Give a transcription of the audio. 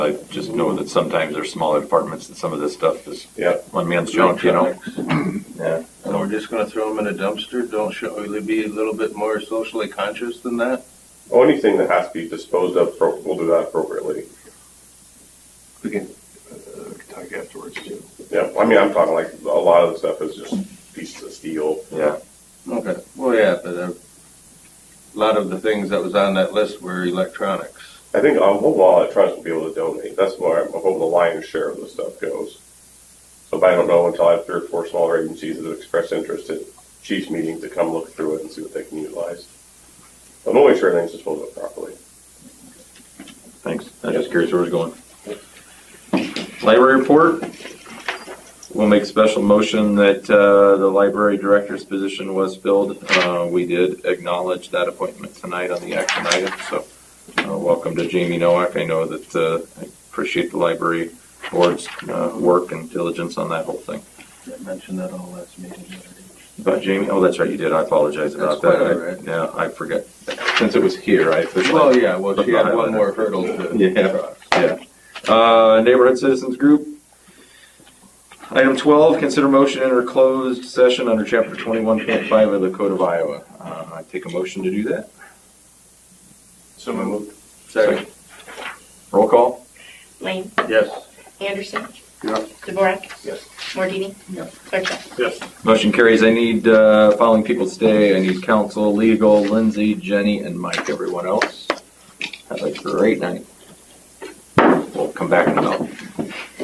I just know that sometimes there's smaller departments and some of this stuff is Yeah. one man's junk, you know? Yeah. And we're just gonna throw them in a dumpster? Don't, should we be a little bit more socially conscious than that? Oh, anything that has to be disposed of, pro- we'll do that appropriately. We can, uh, we can talk afterwards too. Yeah, I mean, I'm talking like a lot of the stuff is just pieces of steel. Yeah, Okay, well, yeah, but uh, a lot of the things that was on that list were electronics. I think I'm hoping all electronics will be able to donate. That's where I'm hoping the lion's share of the stuff goes. So, but I don't know until I have three or four smaller agencies that have expressed interest at chief's meeting to come look through it and see what they can utilize. I'm only sure things disposed of properly. thanks. I'm just curious where it's going. Library report. We'll make special motion that, uh, the library director's position was filled. Uh, we did acknowledge that appointment tonight on the action item, so, uh, welcome to Jamie Nowak. I know that, uh, I appreciate the library board's, uh, work and diligence on that whole thing. I mentioned that all last meeting. About Jamie? Oh, that's right, you did. I apologize That's about that. quite all I- right. Yeah, I forget. Since it was here, I officially. Well, yeah, well, she had one more hurdle to Yeah. cross. Yeah. Uh, Neighborhood Citizens Group. Item 12, consider motion enter closed session under Chapter 21.5 of the Code of Iowa. Uh, I Take a motion to do that. So moved. Second, Roll call? Lane, yes. Anderson. Yeah. DeVorak. Yes. Mordini. Yeah. Sarchet. Yes. Motion carries. I need uh, following people to stay. I need counsel, legal, Lindsay, Jenny, and Mike, everyone else. Have a great night. We'll come back in a minute.